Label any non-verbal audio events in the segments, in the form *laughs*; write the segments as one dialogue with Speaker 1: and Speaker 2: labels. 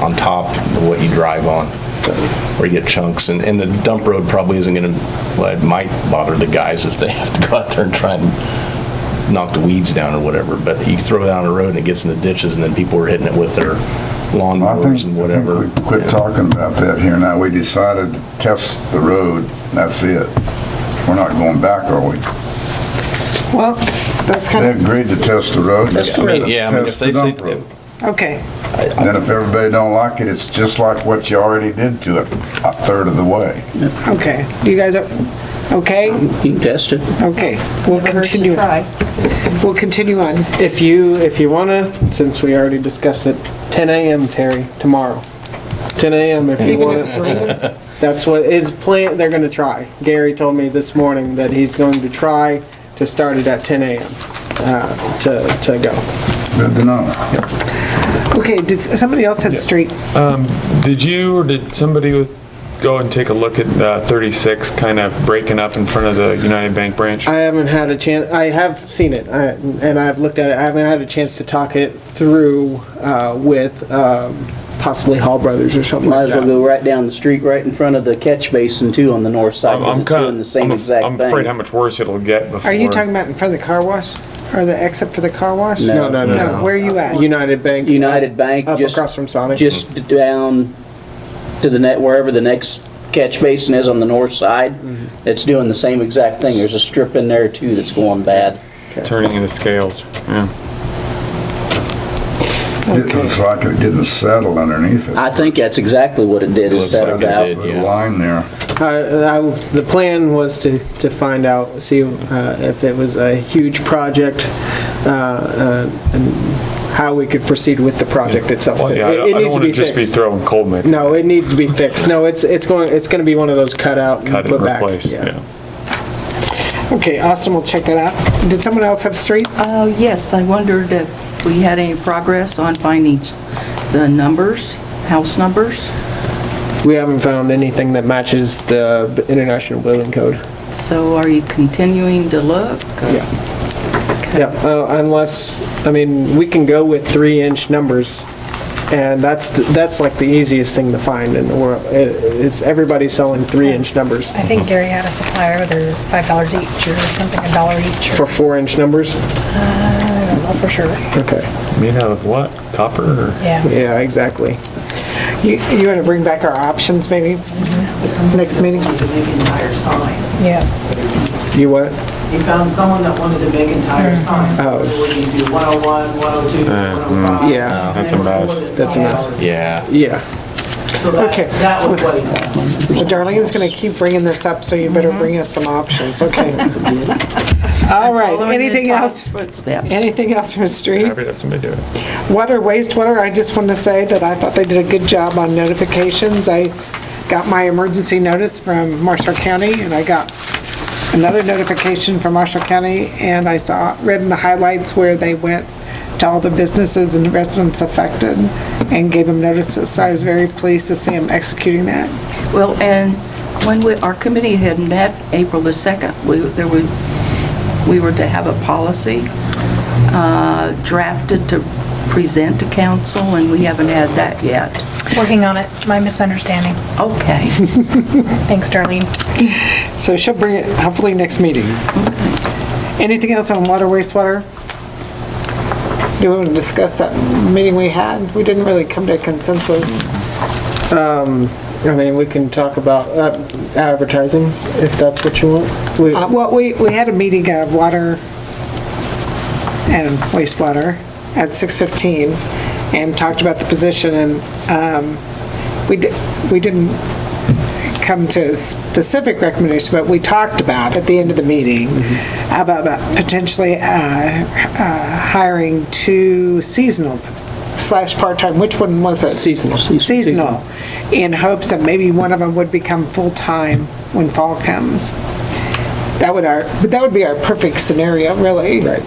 Speaker 1: on top of what you drive on, where you get chunks. And, and the dump road probably isn't going to, well, it might bother the guys if they have to go out there and try and knock the weeds down or whatever. But you throw it down the road and it gets in the ditches and then people are hitting it with their
Speaker 2: I think-
Speaker 1: lawnmowers and
Speaker 2: I
Speaker 1: whatever.
Speaker 2: think we quit
Speaker 1: Yeah.
Speaker 2: talking about that here now. We decided test the road, that's it. We're not going back, are we?
Speaker 3: Well, that's
Speaker 2: They
Speaker 3: kind
Speaker 2: agreed to test the road. they
Speaker 1: I
Speaker 2: said,
Speaker 1: mean,
Speaker 2: "Let's
Speaker 1: Yeah, I mean, if
Speaker 2: test
Speaker 1: they
Speaker 2: the
Speaker 1: say,
Speaker 2: dump road."
Speaker 3: of, okay.
Speaker 2: Then if everybody don't like it, it's just like what you already did to it, a third of the way.
Speaker 3: Okay, you guys are, okay,
Speaker 4: You can test it.
Speaker 3: okay, we'll
Speaker 5: Never hurts to
Speaker 3: continue,
Speaker 5: try.
Speaker 3: we'll continue on.
Speaker 6: If you, if you wanna, since we already discussed it, 10 AM, Terry, tomorrow. 10 AM if you
Speaker 3: Even if it's
Speaker 6: wanna.
Speaker 3: raining,
Speaker 6: That's what is plan, they're gonna try. Gary told me this morning that he's going to try to start it at 10 AM, uh, to, to go.
Speaker 2: Good to know.
Speaker 3: Okay, did, s- somebody else had street,
Speaker 7: Did you or did somebody go and take a look at uh, 36 kind of breaking up in front of the United Bank branch?
Speaker 6: I haven't had a chance, I have seen it, I- and I've looked at it, I haven't had a chance to talk it through uh, with um, possibly Hall Brothers or something
Speaker 4: Might
Speaker 6: like
Speaker 4: as
Speaker 6: that.
Speaker 4: well go right down the street, right in front of the catch basin too on the north side,
Speaker 7: I'm-
Speaker 4: because
Speaker 7: I'm
Speaker 4: it's
Speaker 7: kinda-
Speaker 4: doing the same
Speaker 7: I'm af-
Speaker 4: exact
Speaker 7: I'm afraid how
Speaker 4: thing.
Speaker 7: much worse it'll get before.
Speaker 3: are you talking about in front of the car wash? Or the exit for the car wash?
Speaker 4: No.
Speaker 6: No, no, no.
Speaker 3: No, where you at?
Speaker 6: United Bank. uh,
Speaker 4: United Bank,
Speaker 6: Up
Speaker 4: just-
Speaker 6: across from Sonic.
Speaker 4: Just down to the net, wherever the next catch basin is on the north side,
Speaker 6: Mm-hmm.
Speaker 4: it's doing the same exact thing. There's a strip in there too that's going bad.
Speaker 7: Turning into scales. Yeah.
Speaker 2: It looks like it didn't settle underneath it.
Speaker 4: I think that's exactly what it
Speaker 1: It
Speaker 4: did, is
Speaker 1: looks
Speaker 4: settled
Speaker 1: like it
Speaker 4: out.
Speaker 1: did.
Speaker 2: The
Speaker 1: Yeah.
Speaker 2: line there.
Speaker 6: I- Uh, I- The plan was to, to find out, see uh, if it was a huge project, uh, uh, and how we could proceed with the project itself.
Speaker 7: Well,
Speaker 6: It
Speaker 7: yeah, I don't-
Speaker 6: it
Speaker 7: I don't
Speaker 6: needs to
Speaker 7: want to
Speaker 6: be
Speaker 7: just be
Speaker 6: fixed.
Speaker 7: throwing cold mix.
Speaker 6: No, it needs to be fixed. No, it's, it's going, it's going to be one of those cut out
Speaker 7: Cut
Speaker 6: and
Speaker 7: and
Speaker 6: put back.
Speaker 7: replace, yeah.
Speaker 3: Okay, Austin will check that out. Did someone else have street?
Speaker 5: Uh, Yes, I wondered if we had any progress on finding s- the numbers, house numbers.
Speaker 6: We haven't found anything that matches the B- International Building Code.
Speaker 5: So are you continuing to look?
Speaker 6: Yeah, uh, unless, I mean, we can go with three-inch numbers, and that's, th- that's like the easiest thing to find in the world. It- It's, everybody's selling three-inch numbers.
Speaker 8: I think Gary had a supplier, they're five dollars each or something, a dollar each
Speaker 6: For
Speaker 8: or,
Speaker 6: four-inch numbers?
Speaker 8: I don't know for sure.
Speaker 6: Okay,
Speaker 7: Made out of what? Copper or?
Speaker 8: Yeah.
Speaker 6: yeah, exactly.
Speaker 3: You, you wanna bring back our options maybe next meeting?
Speaker 9: make entire signs.
Speaker 8: Yeah.
Speaker 6: You what?
Speaker 9: You found someone that wanted to make entire
Speaker 5: Mm-hmm.
Speaker 9: signs.
Speaker 6: Oh.
Speaker 9: Whether we can do 101, 102, 105.
Speaker 6: Yeah,
Speaker 7: Uh, mm.
Speaker 5: Oh.
Speaker 7: That's a mess.
Speaker 6: That's a mess.
Speaker 1: Yeah.
Speaker 6: yeah.
Speaker 9: So that,
Speaker 3: Okay.
Speaker 9: that was what he meant.
Speaker 3: Well, Darlene's gonna keep bringing this up, so you better
Speaker 5: Mm-hmm.
Speaker 3: bring us some options,
Speaker 5: *laughs*
Speaker 3: okay? All right,
Speaker 5: Following in
Speaker 3: anything
Speaker 5: Todd's
Speaker 3: else,
Speaker 5: Footsteps.
Speaker 3: anything else from street?
Speaker 7: Happy to have somebody do it.
Speaker 3: Water, wastewater, I just want to say that I thought they did a good job on notifications. I got my emergency notice from Marshall County, and I got another notification from Marshall County, and I saw, read in the highlights where they went to all the businesses and residents affected and gave them notices, so I was very pleased to see them executing that.
Speaker 5: Well, and when we, our committee had met April the 2nd, we, there were, we were to have a policy uh, drafted to present to council, and we haven't had that yet.
Speaker 8: Working on it, my misunderstanding.
Speaker 5: Okay.
Speaker 8: Thanks, Darlene.
Speaker 3: So she'll bring it hopefully next meeting. Anything else on water, wastewater? Do we want to discuss that meeting we had? We didn't really come to a consensus.
Speaker 6: I mean, we can talk about uh, advertising, if that's what you want. We-
Speaker 3: Uh, Well, we, we had a meeting of water and wastewater at 6:15 and talked about the position, and um, we, di- we didn't come to a specific recommendation, but we talked about at the end of the meeting about about potentially uh, uh, hiring two seasonal slash part-time, which one was it?
Speaker 6: Seasonal.
Speaker 3: Seasonal, in hopes that maybe one of them would become full-time when fall comes. That would our, but that would be our perfect scenario, really. Right.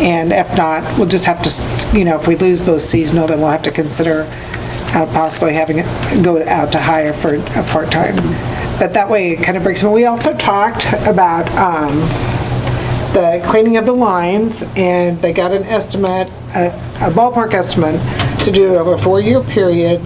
Speaker 3: And if not, we'll just have to, you know, if we lose both seasonal, then we'll have to consider uh, possibly having it go out to hire for a part-time. But that way, it kind of breaks, but we also talked about um, the cleaning of the lines, and they got an estimate, a a ballpark estimate, to do it over a four-year period,